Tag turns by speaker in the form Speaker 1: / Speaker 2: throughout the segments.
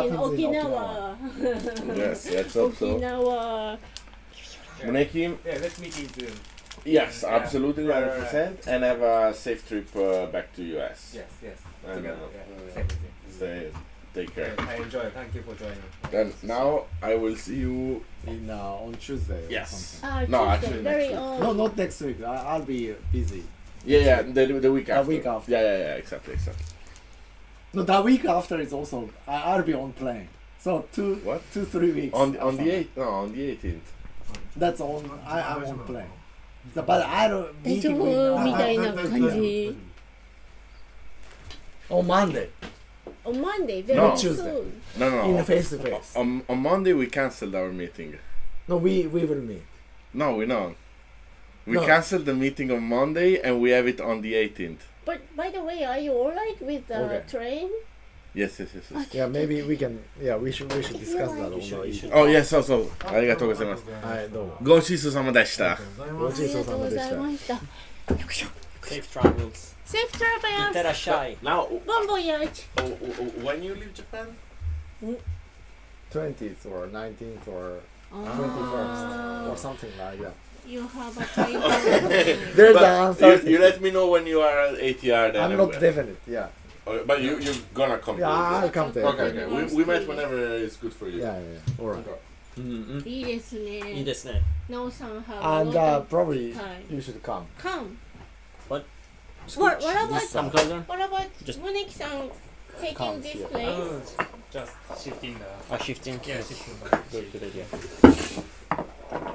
Speaker 1: in
Speaker 2: happens in Okinawa.
Speaker 1: Okinawa.
Speaker 3: Yes, let's hope so.
Speaker 1: Okinawa.
Speaker 3: Make him.
Speaker 4: Yeah, let's meet in June.
Speaker 3: Yes,
Speaker 4: Yeah.
Speaker 3: absolutely,
Speaker 4: Right, right,
Speaker 3: hundred percent, and have a safe trip uh, back to US.
Speaker 4: Yes, yes.
Speaker 3: I
Speaker 4: Together.
Speaker 3: know.
Speaker 4: Yeah. Same with you.
Speaker 3: Stay, take care.
Speaker 4: Yeah, I enjoy. Thank you for joining.
Speaker 3: And now I will see you.
Speaker 2: in uh, on Tuesday.
Speaker 3: Yes.
Speaker 2: Or something.
Speaker 1: Ah,
Speaker 3: No,
Speaker 1: Tuesday,
Speaker 3: actually
Speaker 1: very
Speaker 3: next week.
Speaker 1: old.
Speaker 2: No, not next week. I, I'll be busy.
Speaker 3: Yeah, yeah, the, the week
Speaker 2: The
Speaker 3: after.
Speaker 2: week after.
Speaker 3: Yeah, yeah, yeah, exactly, exactly.
Speaker 2: No, the week after is also I, I'll be on plane. So two,
Speaker 3: What?
Speaker 2: two, three weeks.
Speaker 3: On on the
Speaker 2: after.
Speaker 3: eighth? No, on the eighteenth.
Speaker 2: That's on. I, I'm on plane. So, but I don't.
Speaker 1: えっと
Speaker 2: meeting with- uh,
Speaker 1: みた
Speaker 2: I-
Speaker 1: いな感じ。
Speaker 2: on Oh, Monday
Speaker 1: On Monday, very
Speaker 3: No.
Speaker 2: Tuesday.
Speaker 1: soon.
Speaker 3: No, no,
Speaker 2: in
Speaker 3: no.
Speaker 2: face to face.
Speaker 3: On, on Monday we cancelled our meeting.
Speaker 2: No, we we will meet.
Speaker 3: No, we know. We
Speaker 2: No.
Speaker 3: cancelled the meeting on Monday and we have it on the 18th.
Speaker 1: But by the way, are you alright with the
Speaker 2: Okay.
Speaker 1: train?
Speaker 3: Yes, yes, yes. yes.
Speaker 2: Yeah, maybe we can. Yeah, we should we should discuss that on
Speaker 1: You
Speaker 2: the issue.
Speaker 3: Oh, yes, so, so. ありがとうございます。
Speaker 2: I know.
Speaker 3: ごちそうさまでした。
Speaker 2: ご
Speaker 1: あ
Speaker 2: ち
Speaker 1: り
Speaker 2: そう
Speaker 1: が
Speaker 2: さ
Speaker 1: とう
Speaker 2: ま
Speaker 1: ご
Speaker 2: で
Speaker 1: ざ
Speaker 2: し
Speaker 1: い
Speaker 2: た。
Speaker 1: ました。よいしょ
Speaker 5: Safe travels.
Speaker 1: Safe travels!
Speaker 5: Itarashai.
Speaker 4: Now, oh,
Speaker 1: Bon voyage!
Speaker 4: when you leave Japan?
Speaker 2: 20th or 19th or
Speaker 1: Ah.
Speaker 3: Ah.
Speaker 2: 21st
Speaker 1: あ
Speaker 2: or something like that.
Speaker 1: ー You have a time.
Speaker 2: There's
Speaker 3: But
Speaker 2: an uncertainty.
Speaker 3: You, you let me know when you are at ATR then.
Speaker 2: I'm
Speaker 3: and
Speaker 2: not
Speaker 3: we-
Speaker 2: definite. Yeah.
Speaker 3: Oh, But you, you're gonna come.
Speaker 2: Yeah, I'll come there.
Speaker 3: Okay, okay. We, we meet whenever it's good for you.
Speaker 2: Yeah, yeah. All right.
Speaker 5: Mm-hmm.
Speaker 1: いいですね。
Speaker 5: いいですね。
Speaker 1: なおさん have
Speaker 2: And uh,
Speaker 1: a lot of
Speaker 2: probably
Speaker 1: time.
Speaker 2: you should come.
Speaker 1: Come.
Speaker 5: Scooch.
Speaker 1: what about-
Speaker 5: Come closer.
Speaker 1: What about
Speaker 5: Just-
Speaker 1: モネキさん taking
Speaker 2: Comes
Speaker 1: this
Speaker 2: here.
Speaker 1: place?
Speaker 4: Oh, just shifting the.
Speaker 5: Ah, shifting.
Speaker 4: Yeah, shifting the.
Speaker 5: Good, good idea.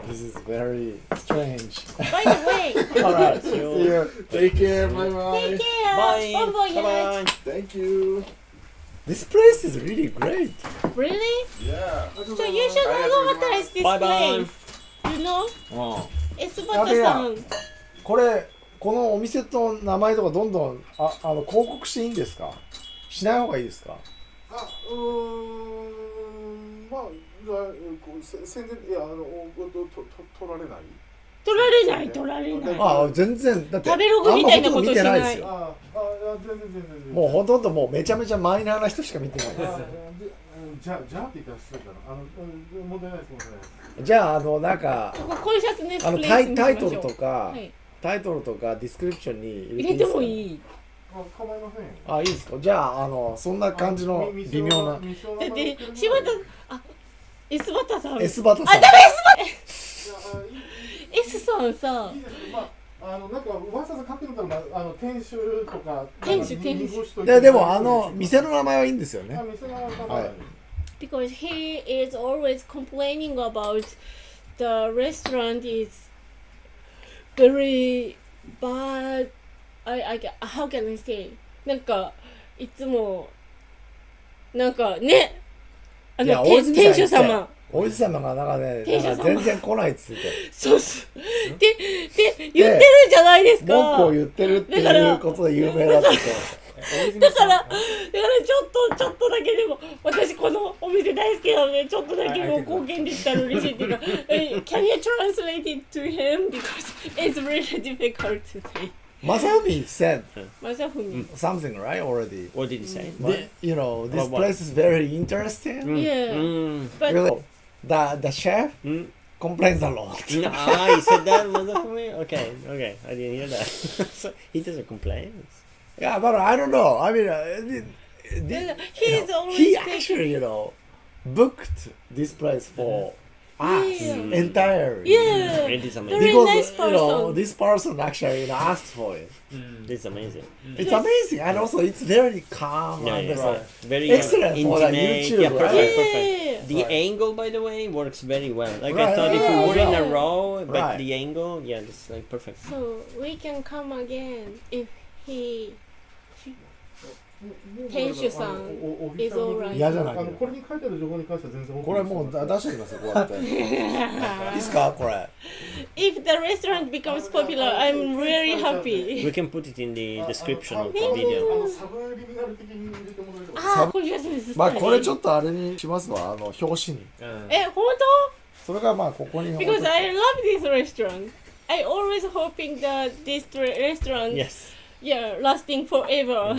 Speaker 2: This is very strange.
Speaker 3: Ah.
Speaker 1: By the way,
Speaker 2: All right. See
Speaker 5: you.
Speaker 2: you.
Speaker 3: Take care. Bye bye.
Speaker 1: take care!
Speaker 5: Bye.
Speaker 1: Bon voyage!
Speaker 5: Bye-bye.
Speaker 3: Thank you.
Speaker 2: This place is really great.
Speaker 1: Really?
Speaker 3: Yeah.
Speaker 1: So you should advertise this
Speaker 5: Bye bye.
Speaker 1: place. You know? スバタさ
Speaker 2: や
Speaker 1: ん。
Speaker 2: これこのお店と名前とかどんどんああの広告していいんですか？しない方がいいですか？
Speaker 6: あうーんまあだこうせ宣伝いやあのおおととと取られない
Speaker 1: 取られない、取られない。
Speaker 2: ああ全然だって
Speaker 1: 食べログみたいなことしない
Speaker 2: あんまほとんど見てですよ
Speaker 6: あああ全然全然全然
Speaker 2: もうほとんどもうめちゃめちゃマイナーな人しか見てないで
Speaker 6: あでうんじゃじゃあって言ったら失礼だなあのうん問題ないです問題ないです
Speaker 2: す。じゃああのなんか
Speaker 1: ここ、こういうシャツね、
Speaker 2: あの
Speaker 1: プレ
Speaker 2: タ
Speaker 1: イス
Speaker 2: イ
Speaker 1: に
Speaker 2: タイ
Speaker 1: しま
Speaker 2: ト
Speaker 1: し
Speaker 2: ル
Speaker 1: ょう
Speaker 2: とか、
Speaker 1: はい
Speaker 2: タイトルとかディスクリプションに入れて
Speaker 1: 入
Speaker 2: い
Speaker 1: れ
Speaker 2: い
Speaker 1: て
Speaker 2: ですか
Speaker 1: もいい。
Speaker 6: あ構いませんよ
Speaker 2: あいいですかじゃああのそんな感じの
Speaker 6: み
Speaker 2: 微妙な
Speaker 6: 未承
Speaker 1: だ
Speaker 6: 認
Speaker 1: って
Speaker 6: 未承認、
Speaker 1: 柴田、あ、S バタさん。S
Speaker 2: S バタさん
Speaker 6: いやあいい
Speaker 1: さんさ
Speaker 6: いい、ですまああのなんかわざわざ書くんだったら、まあ、あの店主とか
Speaker 1: 店主
Speaker 6: なんか
Speaker 1: 店主
Speaker 6: 濁しといて
Speaker 2: ででもあの店の名前はいいんですよ
Speaker 6: あ
Speaker 2: ね
Speaker 6: 店の名前
Speaker 2: はい
Speaker 1: because he is always complaining about the restaurant is very bad. I, I, ca- how can I say? なんか、いつも、なんかね、あ
Speaker 2: いや
Speaker 1: の、
Speaker 2: 大
Speaker 1: て
Speaker 2: 泉さん
Speaker 1: 店主
Speaker 2: 言ってたよ
Speaker 1: 様。
Speaker 2: おじさまがなんかね
Speaker 1: 店主
Speaker 2: な
Speaker 1: 様
Speaker 2: んか全然来ないっつって
Speaker 1: そうそう。で、で、言ってるじゃないですか。
Speaker 2: 文句を言ってるっていうことで有名だったと
Speaker 1: だから、だからちょっと、ちょっとだけでも、私このお店大好きなので、ちょっとだけもう貢献できたら嬉しいっていうか、え Can you translate it to him? Because it's really difficult to say.
Speaker 2: マサミ said
Speaker 1: まさふみ。
Speaker 2: something right already
Speaker 5: What did he say?
Speaker 2: The, you know this
Speaker 5: About what?
Speaker 2: place is very interesting
Speaker 1: Yeah.
Speaker 5: Mm.
Speaker 1: But
Speaker 2: really the the chef
Speaker 5: Mm.
Speaker 2: complains a lot
Speaker 5: ah, he said that was that for me? Okay, okay. I didn't hear that. so he doesn't complain.
Speaker 2: yeah but I don't know I mean uh, thi- thi-
Speaker 1: he's
Speaker 2: he
Speaker 1: always taking.
Speaker 2: actually you know booked this place for us
Speaker 1: Yeah.
Speaker 2: entirely
Speaker 1: Yeah.
Speaker 5: It is
Speaker 1: Very
Speaker 5: amazing.
Speaker 1: nice
Speaker 2: you know
Speaker 1: person.
Speaker 2: this person actually you know, asked for it
Speaker 4: Mm.
Speaker 5: It's amazing.
Speaker 2: It's amazing, and also it's very calm.
Speaker 5: Yeah,
Speaker 2: and
Speaker 5: yeah.
Speaker 2: so-
Speaker 5: Very
Speaker 2: Excellent for that
Speaker 5: intimate.
Speaker 2: YouTube,
Speaker 5: yeah,
Speaker 2: right?
Speaker 5: perfect, perfect.
Speaker 1: Yeah.
Speaker 5: The angle, by the way, works very well. Like
Speaker 2: Right,
Speaker 5: I thought, if
Speaker 1: yeah,
Speaker 5: we were in a
Speaker 1: yeah.
Speaker 5: row, but
Speaker 2: Right.
Speaker 5: the angle, yeah, it's like perfect.
Speaker 1: So we can come again if he.
Speaker 6: 店
Speaker 1: 店
Speaker 6: 主
Speaker 1: 主
Speaker 6: さ
Speaker 1: さ
Speaker 6: ん
Speaker 1: ん
Speaker 6: is
Speaker 1: is
Speaker 6: alright
Speaker 1: alright
Speaker 2: 嫌じゃない
Speaker 6: あのこれに書いてある情報に関しては全然 OK
Speaker 2: これもうだ出してきますよ、こうやって。いいですか、これ。
Speaker 1: If the restaurant becomes popular, I'm really happy.
Speaker 5: We can put it in the
Speaker 6: ああ
Speaker 5: description
Speaker 6: あ
Speaker 5: of the
Speaker 6: あの
Speaker 5: video.
Speaker 6: あのサブリミナル的に入れてもらえれば
Speaker 1: ああ、これです。
Speaker 2: まあ、これちょっとあれにしますわ、あの表紙に。
Speaker 1: え、本当
Speaker 2: それがまあ、ここに置いて。
Speaker 1: Eh, Because I love this restaurant. I always hoping that this re- restaurant
Speaker 5: Yes.
Speaker 1: yeah lasting forever.